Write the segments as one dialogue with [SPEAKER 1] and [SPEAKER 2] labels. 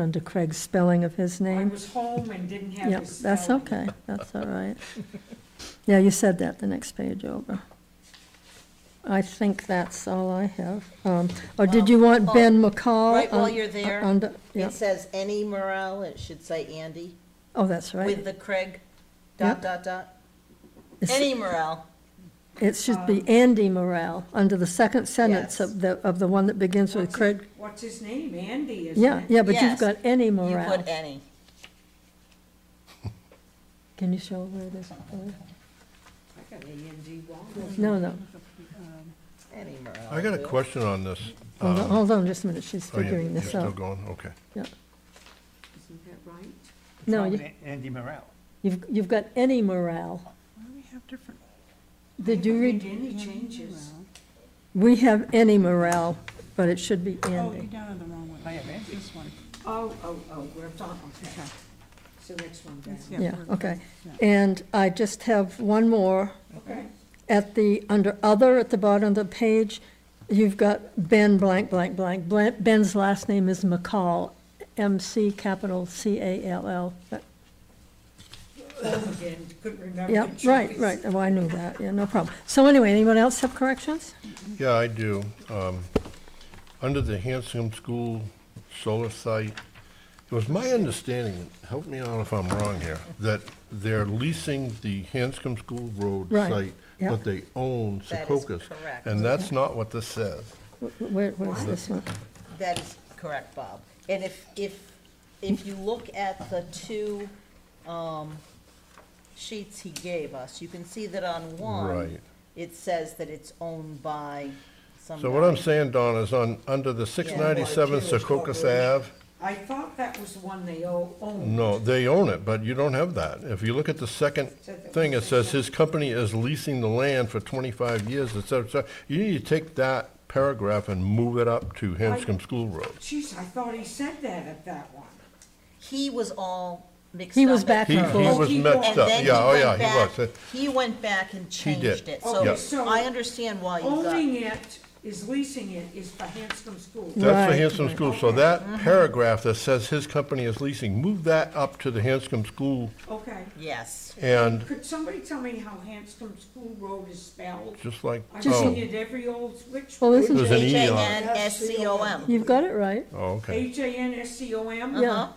[SPEAKER 1] under Craig's spelling of his
[SPEAKER 2] I
[SPEAKER 1] name.
[SPEAKER 2] was home and didn't have
[SPEAKER 1] Yep,
[SPEAKER 2] his spelling.
[SPEAKER 1] that's okay, that's all right. Yeah, you said that the next page over. I think that's all I have. Um, Or did you want
[SPEAKER 3] Well,
[SPEAKER 1] Ben McCall?
[SPEAKER 3] right while
[SPEAKER 1] un-
[SPEAKER 3] you're there,
[SPEAKER 1] under- Uh-uh, yeah.
[SPEAKER 3] It says any Morel, it should say Andy,
[SPEAKER 1] Oh, that's
[SPEAKER 3] with
[SPEAKER 1] right.
[SPEAKER 3] the Craig,
[SPEAKER 1] Yep.
[SPEAKER 3] dot, dot, dot.
[SPEAKER 1] It's-
[SPEAKER 3] Any Morel.
[SPEAKER 1] It should be Andy Morel, under the second sentence
[SPEAKER 3] Yes.
[SPEAKER 1] of the, of the one that begins with
[SPEAKER 2] What's
[SPEAKER 1] Craig.
[SPEAKER 2] his- What's his name? Andy, isn't it?
[SPEAKER 1] Yeah, yeah, but you've
[SPEAKER 3] Yes.
[SPEAKER 1] got any
[SPEAKER 3] you
[SPEAKER 1] Morel.
[SPEAKER 3] put any.
[SPEAKER 1] Can you show where it is?
[SPEAKER 2] I got A-N-D wrong.
[SPEAKER 1] No, no,
[SPEAKER 3] Any Morel.
[SPEAKER 4] I got a question on this.
[SPEAKER 1] hold on,
[SPEAKER 4] Um,
[SPEAKER 1] hold on just a minute, she's
[SPEAKER 4] oh, you-
[SPEAKER 1] figuring this
[SPEAKER 4] You're
[SPEAKER 1] out.
[SPEAKER 4] still going, okay.
[SPEAKER 1] Yeah.
[SPEAKER 2] Isn't that right?
[SPEAKER 1] No,
[SPEAKER 5] Probably
[SPEAKER 1] you-
[SPEAKER 5] Andy Morel.
[SPEAKER 1] you've, you've got any Morel.
[SPEAKER 5] Why do we have different?
[SPEAKER 1] Did you read,
[SPEAKER 2] Made any changes?
[SPEAKER 1] we have any Morel, but it should be
[SPEAKER 5] Oh, you're
[SPEAKER 1] Andy.
[SPEAKER 5] down on the wrong one. I have Andy. This one.
[SPEAKER 2] Oh, oh, oh, we're done, okay. So next one down.
[SPEAKER 5] That's-
[SPEAKER 1] Yeah, okay.
[SPEAKER 5] Yeah.
[SPEAKER 1] And I just have one more.
[SPEAKER 2] Okay,
[SPEAKER 1] At the, under other, at the bottom of the page, you've got Ben blank, blank, blank. Blan- Ben's last name is McCall, M-C capital C-A-L-L. That-
[SPEAKER 2] home again, couldn't remember.
[SPEAKER 1] Yeah,
[SPEAKER 2] the
[SPEAKER 1] right,
[SPEAKER 2] choice.
[SPEAKER 1] right, oh, I knew that, yeah, no problem. So anyway, anyone else have corrections?
[SPEAKER 4] Yeah, I do. Um, Under the Hanscom School solar site, it was my understanding, help me out if I'm wrong here, that they're leasing the Hanscom School Road
[SPEAKER 1] Right,
[SPEAKER 4] site,
[SPEAKER 1] yeah.
[SPEAKER 4] but they own
[SPEAKER 3] That is
[SPEAKER 4] Secocas.
[SPEAKER 3] correct.
[SPEAKER 4] And that's not what this says.
[SPEAKER 1] Wh- Where, where's this one?
[SPEAKER 3] That is correct, Bob. And if, if, if you look at the two um, sheets he gave us, you can see that on one,
[SPEAKER 4] Right.
[SPEAKER 3] it says that it's owned by somebody.
[SPEAKER 4] So what I'm saying, Don, is on, under the 697
[SPEAKER 2] Yeah.
[SPEAKER 4] Secocas Ave,
[SPEAKER 2] I thought that was the one they o- owned.
[SPEAKER 4] No, they own it, but you don't have that. If you look at the second thing, it says his company is leasing the land for twenty-five years, et cetera, et cetera. You need to take that paragraph and move it up to Hanscom School Road.
[SPEAKER 2] Jeez, I thought he said that at that one.
[SPEAKER 3] He was all mixed up.
[SPEAKER 1] He was
[SPEAKER 3] at
[SPEAKER 1] back
[SPEAKER 4] He, he
[SPEAKER 1] and forth.
[SPEAKER 4] was mixed
[SPEAKER 3] And
[SPEAKER 4] up,
[SPEAKER 3] then he
[SPEAKER 4] yeah, oh,
[SPEAKER 3] went
[SPEAKER 4] yeah,
[SPEAKER 3] back-
[SPEAKER 4] he was.
[SPEAKER 3] He went back and changed it,
[SPEAKER 2] Okay,
[SPEAKER 3] so
[SPEAKER 2] so
[SPEAKER 3] I understand why you got,
[SPEAKER 2] Owning it is leasing it is for Hanscom School.
[SPEAKER 4] That's
[SPEAKER 1] Right,
[SPEAKER 4] the Hanscom
[SPEAKER 1] right.
[SPEAKER 4] School, so that paragraph that says his company is leasing, move that up to the Hanscom School,
[SPEAKER 2] Okay.
[SPEAKER 3] yes.
[SPEAKER 4] and
[SPEAKER 2] Could somebody tell me how Hanscom School Road is spelled?
[SPEAKER 4] just like,
[SPEAKER 2] I've seen
[SPEAKER 4] oh,
[SPEAKER 2] it every old switch.
[SPEAKER 1] Well, isn't
[SPEAKER 4] There's an
[SPEAKER 1] it,
[SPEAKER 4] E on it.
[SPEAKER 3] H-A-N-S-C-O-M,
[SPEAKER 1] you've got it right,
[SPEAKER 4] oh, okay.
[SPEAKER 2] H A N S C O M?
[SPEAKER 1] yeah,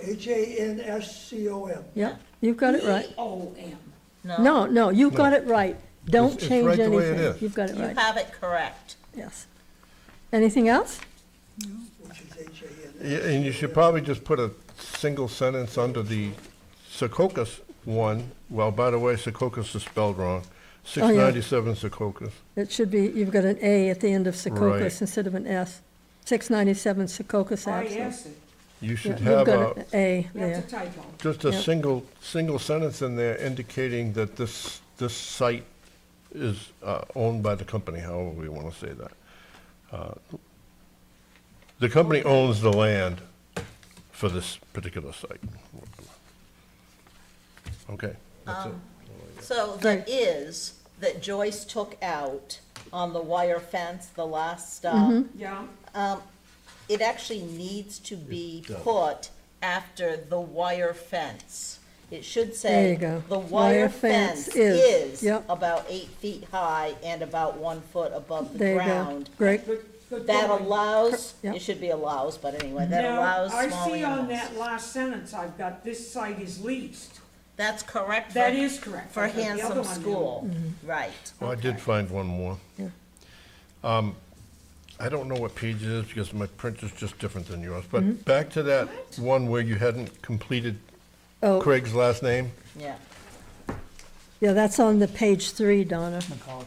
[SPEAKER 6] H-A-N-S-C-O-M.
[SPEAKER 1] yeah, you've got it right.
[SPEAKER 2] E O M.
[SPEAKER 3] no,
[SPEAKER 1] No, no, you've got it right. Don't
[SPEAKER 4] It's- it's
[SPEAKER 1] change
[SPEAKER 4] right the way it
[SPEAKER 1] anything.
[SPEAKER 4] is.
[SPEAKER 1] You've got it
[SPEAKER 3] you
[SPEAKER 1] right,
[SPEAKER 3] have it correct.
[SPEAKER 1] yes. Anything else?
[SPEAKER 6] which is H-A-N.
[SPEAKER 4] Yeah, And you should probably just put a single sentence under the Secocas one. Well, by the way, Secocas is spelled
[SPEAKER 1] Oh,
[SPEAKER 4] wrong. Six ninety-seven Secocas.
[SPEAKER 1] It should be, you've got an A at the end of
[SPEAKER 4] Right.
[SPEAKER 1] Secocas instead of an S. 697 Secocas
[SPEAKER 3] Ah,
[SPEAKER 2] I
[SPEAKER 1] Ave.
[SPEAKER 2] asked it.
[SPEAKER 4] You
[SPEAKER 1] Yeah, You've
[SPEAKER 4] should have
[SPEAKER 1] got
[SPEAKER 4] a,
[SPEAKER 1] an A there.
[SPEAKER 2] That's a typo.
[SPEAKER 4] just a
[SPEAKER 1] yeah.
[SPEAKER 4] single, single sentence in there indicating that this, this site is uh, owned by the company, however we want to say that. Uh, The company owns the land for this particular site. Okay, that's it.
[SPEAKER 3] So the is that Joyce took out on the wire fence, the last
[SPEAKER 1] Mm-hmm.
[SPEAKER 3] stop,
[SPEAKER 2] Yeah,
[SPEAKER 3] it actually needs to be put after the wire fence. It should
[SPEAKER 1] There
[SPEAKER 3] say,
[SPEAKER 1] you go.
[SPEAKER 3] the wire fence is
[SPEAKER 1] Yep.
[SPEAKER 3] about eight feet high and about one foot above the
[SPEAKER 1] There you go.
[SPEAKER 3] ground.
[SPEAKER 1] Great,
[SPEAKER 2] good, good
[SPEAKER 3] That
[SPEAKER 2] going.
[SPEAKER 3] allows,
[SPEAKER 1] Yep.
[SPEAKER 3] it should be allows, but anyway, that
[SPEAKER 2] Now,
[SPEAKER 3] allows small
[SPEAKER 2] I see on that
[SPEAKER 3] animals.
[SPEAKER 2] last sentence, I've got this site is leased.
[SPEAKER 3] That's correct. for-
[SPEAKER 2] That is correct.
[SPEAKER 3] For
[SPEAKER 2] I got the other
[SPEAKER 3] handsome
[SPEAKER 2] one
[SPEAKER 3] school, right.
[SPEAKER 4] Well, Oh, I did find one more.
[SPEAKER 1] Yeah.
[SPEAKER 4] Um, I don't know what page it is because my print is just different than yours,
[SPEAKER 1] Mm-hmm.
[SPEAKER 4] but back to that one where you hadn't completed
[SPEAKER 1] oh,
[SPEAKER 4] Craig's last name.
[SPEAKER 3] Yeah,
[SPEAKER 1] yeah, that's on the page three, Donna.
[SPEAKER 5] McCall.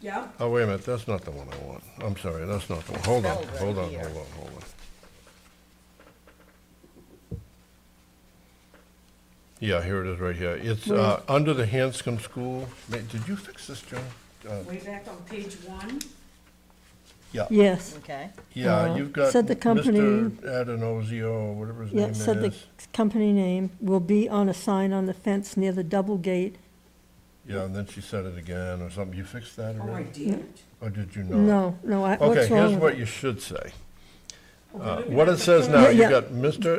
[SPEAKER 2] Yeah,
[SPEAKER 4] Oh, wait a minute, that's not the one I want. I'm sorry, that's not the one. Hold on,
[SPEAKER 3] Spelled right
[SPEAKER 4] hold on,
[SPEAKER 3] here.
[SPEAKER 4] hold on, hold on. Yeah, here it is right here. It's, uh, under the Hanscom School. Ma- Did you fix this, John? Uh,
[SPEAKER 2] way back on page one.
[SPEAKER 4] Yeah.
[SPEAKER 1] Yes,
[SPEAKER 3] okay.
[SPEAKER 4] Yeah,
[SPEAKER 1] Uh,
[SPEAKER 4] you've got
[SPEAKER 1] said the company-
[SPEAKER 4] Mr. Adenozio, or whatever his name
[SPEAKER 1] yeah,
[SPEAKER 4] is.
[SPEAKER 1] said the company name will be on a sign on the fence near the double gate.
[SPEAKER 4] Yeah, and then she said it again or something. You fixed that
[SPEAKER 2] Oh, I
[SPEAKER 4] already?
[SPEAKER 2] did.
[SPEAKER 4] Or did you not?
[SPEAKER 1] No, no, I-
[SPEAKER 4] Okay,
[SPEAKER 1] what's
[SPEAKER 4] here's
[SPEAKER 1] wrong with
[SPEAKER 4] what
[SPEAKER 1] it? Oh,
[SPEAKER 4] you should say. Uh, What it says now,
[SPEAKER 2] Yeah,
[SPEAKER 4] you
[SPEAKER 2] yeah.
[SPEAKER 4] got Mr.